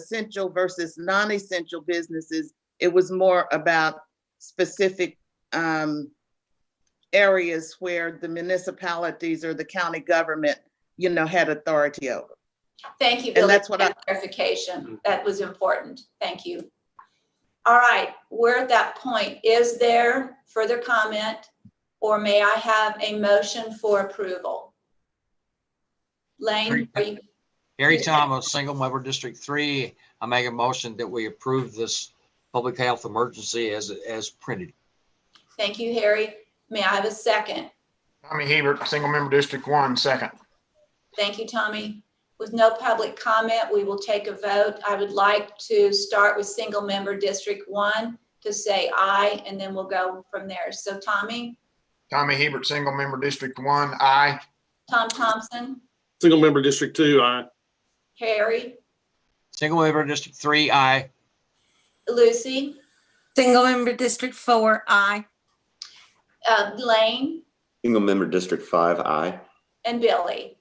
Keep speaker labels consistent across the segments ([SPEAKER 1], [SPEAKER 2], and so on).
[SPEAKER 1] essential versus non-essential businesses. It was more about specific um, areas where the municipalities or the county government, you know, had authority over.
[SPEAKER 2] Thank you,
[SPEAKER 1] And
[SPEAKER 2] Billy,
[SPEAKER 1] that's
[SPEAKER 2] for
[SPEAKER 1] what I-
[SPEAKER 2] that clarification. That was important. Thank you. All right, we're at that point. Is there further comment? Or may I have a motion for approval? Lane, are you,
[SPEAKER 3] Gary Thomas, single member District Three. I make a motion that we approve this public health emergency as, as printed.
[SPEAKER 2] thank you, Harry. May I have a second?
[SPEAKER 4] Tommy Hebert, single member District One, second.
[SPEAKER 2] Thank you, Tommy. With no public comment, we will take a vote. I would like to start with single member District One to say aye, and then we'll go from there. So Tommy,
[SPEAKER 4] Tommy Hebert, single member District One, aye.
[SPEAKER 2] Tom Thompson,
[SPEAKER 5] Single member District Two, aye.
[SPEAKER 2] Harry,
[SPEAKER 3] Single member District Three, aye.
[SPEAKER 2] Lucy,
[SPEAKER 6] Single member District Four, I.
[SPEAKER 2] uh, Lane,
[SPEAKER 7] Single member District Five, aye.
[SPEAKER 2] and Billy.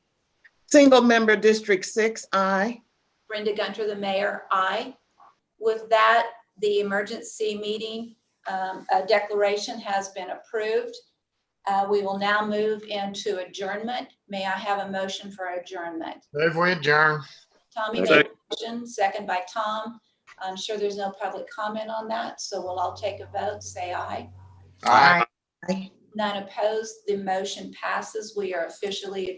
[SPEAKER 1] Single member District Six, aye.
[SPEAKER 2] Brenda Gunter, the mayor, aye. With that, the emergency meeting um, uh, declaration has been approved. Uh, We will now move into adjournment. May I have a motion for adjournment?
[SPEAKER 4] Move we adjourn.
[SPEAKER 2] Tommy made a motion, second by Tom. I'm sure there's no public comment on that, so we'll all take a vote, say aye.
[SPEAKER 4] Aye.
[SPEAKER 2] None opposed, the motion passes. We are officially adjourned.